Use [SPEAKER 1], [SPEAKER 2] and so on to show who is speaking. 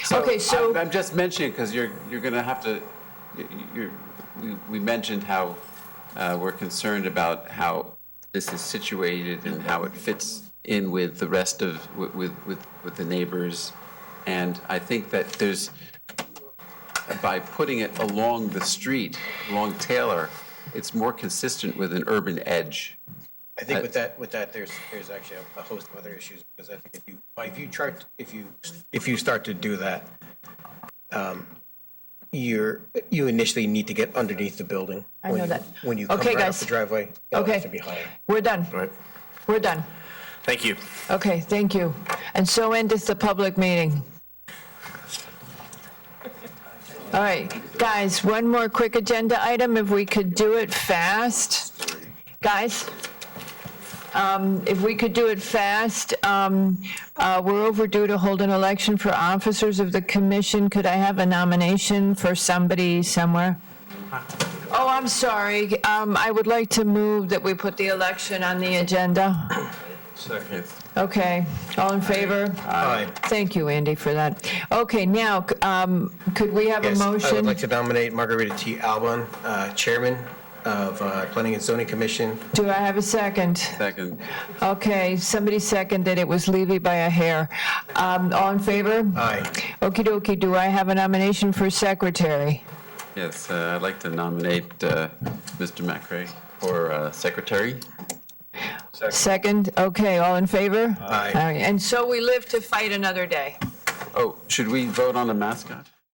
[SPEAKER 1] So
[SPEAKER 2] Okay, so-
[SPEAKER 1] I- I'm just mentioning, because you're, you're going to have to, you- you're, we- we mentioned how uh, we're concerned about how this is situated and how it fits in with the rest of, with, with- with, with the neighbors. And I think that there's, by putting it along the street, along Taylor, it's more consistent with an urban edge.
[SPEAKER 3] I
[SPEAKER 4] Uh,
[SPEAKER 3] think with that, with that, there's, there's actually a- a host of other issues, because I think if you, if you chart, if you, if you start to do that, um, you're, you initially need to get underneath the building.
[SPEAKER 2] I
[SPEAKER 3] when
[SPEAKER 2] know
[SPEAKER 3] you-
[SPEAKER 2] that.
[SPEAKER 3] When you come
[SPEAKER 2] Okay,
[SPEAKER 3] right
[SPEAKER 2] guys.
[SPEAKER 3] up the driveway. it'll have
[SPEAKER 2] Okay.
[SPEAKER 3] To be higher.
[SPEAKER 2] We're done.
[SPEAKER 4] Right.
[SPEAKER 2] We're done.
[SPEAKER 4] Thank you.
[SPEAKER 2] Okay, thank you. And so endeth the public meeting. All right, guys, one more quick agenda item, if we could do it fast. Guys, um, if we could do it fast, um, uh, we're overdue to hold an election for officers of the commission. Could I have a nomination for somebody somewhere? Oh, I'm sorry. Um, I would like to move that we put the election on the agenda. Okay, all in favor?
[SPEAKER 3] Aye.
[SPEAKER 2] Thank you, Andy, for that. Okay, now, c- um, could we have a
[SPEAKER 3] Yes, I would
[SPEAKER 2] motion?
[SPEAKER 3] like to nominate Margarita T. Alban, uh, Chairman of uh, Planning and Zoning Commission.
[SPEAKER 2] Do I have a second?
[SPEAKER 1] Second,
[SPEAKER 2] Okay, somebody seconded, it was Levy by a hair. Um, All in favor?
[SPEAKER 3] Aye.
[SPEAKER 2] Okey dokey, do I have a nomination for secretary?
[SPEAKER 1] yes, uh, I'd like to nominate uh, Mr. McRae for uh, secretary.
[SPEAKER 2] Second, okay, all in favor?
[SPEAKER 3] Aye.
[SPEAKER 2] All right, And so we live to fight another day.
[SPEAKER 1] Oh, should we vote on the mascot?